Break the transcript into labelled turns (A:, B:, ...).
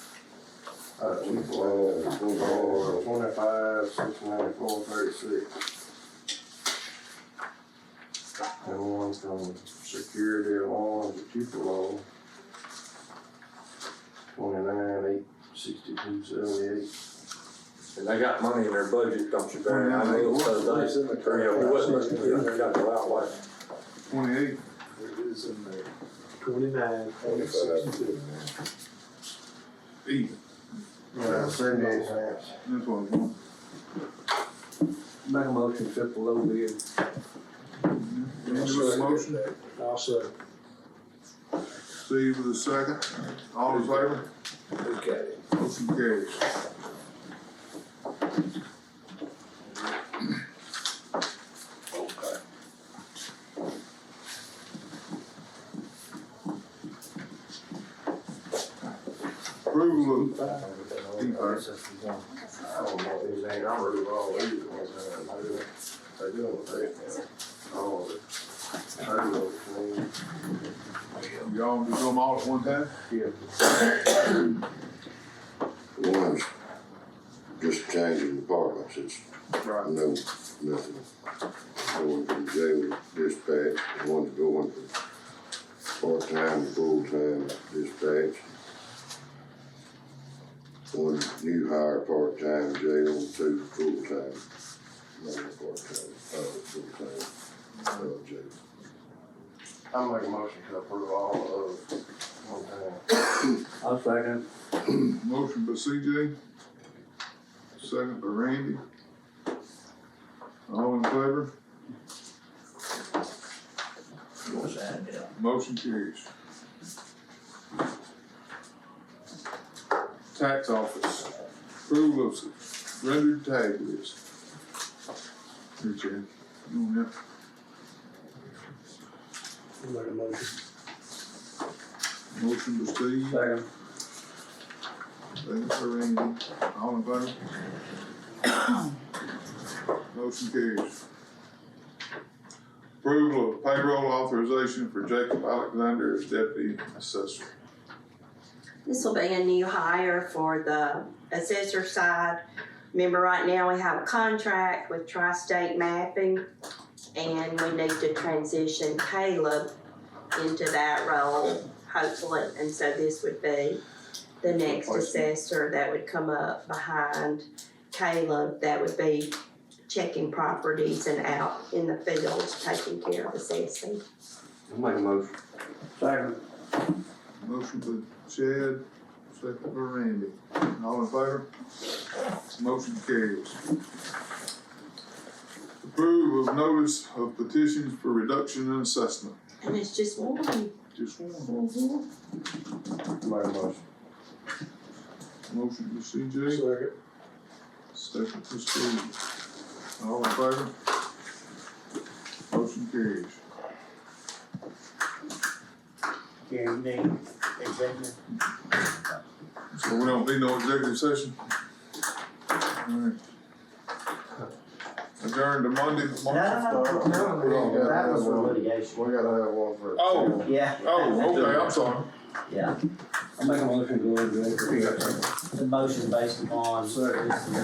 A: Uh, we go on, we go on twenty-five, six ninety-four, thirty-six. And one from security alarm to Tupelo. Twenty-nine, eight, sixty-two, seventy-eight.
B: And they got money in their budget, don't you, Barry? I know,
C: What's
B: because
C: in the
B: they, yeah,
C: current
B: what
C: budget?
B: must be in there, got the right way.
C: Twenty-eight. It is in there.
D: Twenty-nine,
C: Even.
A: Uh, seventy-eight cents.
C: That's what I want.
D: Make a motion, accept the low bid.
C: Mm-hmm. Any other motion?
D: I'll say.
C: Steve with a second. All in favor?
D: Okay.
C: Motion carries. Approval of,
A: I don't know if these ain't, I'm really wrong, these are the ones that I do, I do them, they, all of it. I do them,
C: y'all do them all at one time?
E: One's just changing departments, it's
C: Right.
E: no, nothing. Going from jail to dispatch, and one's going from part-time to full-time dispatch. One new hire, part-time jail, two full-time, not part-time, uh, full-time, uh, jail.
A: I make a motion to approve all of them, one time.
D: I'll second.
C: Motion by CJ. Second by Randy. All in favor? Motion carries. Tax office, approval of rendered tag list. Here, Chad. You want that?
D: Make a motion.
C: Motion by Steve,
D: Second.
C: second by Randy. All in favor? Motion carries. Approval of payroll authorization for Jacob Alexander as deputy assessor.
F: This will be a new hire for the assessor side. Remember, right now, we have a contract with Tri-State Mapping, and we need to transition Caleb into that role, hopefully, and so this would be the next assessor that would come up behind Caleb, that would be checking properties and out in the fields, taking care of assessing.
A: Make a motion.
D: Second.
C: Motion by Chad, second by Randy. All in favor? Motion carries. Approve of notice of petitions for reduction in assessment.
F: And it's just one. Mm-hmm.
C: Just one.
A: Make a motion.
C: Motion by CJ.
D: Second.
C: Second to Steve. All in favor? Motion carries.
D: Can you name executive?
C: So we don't need no executive session? Alright. Adjourn to Monday, March.
G: No, no, no, no, that was for litigation.
A: We gotta have one for.
C: Oh,
G: Yeah,
C: oh, okay, I'm sorry.
G: yeah.
D: I make a motion to go into executive.
G: The motion based upon.
A: Second.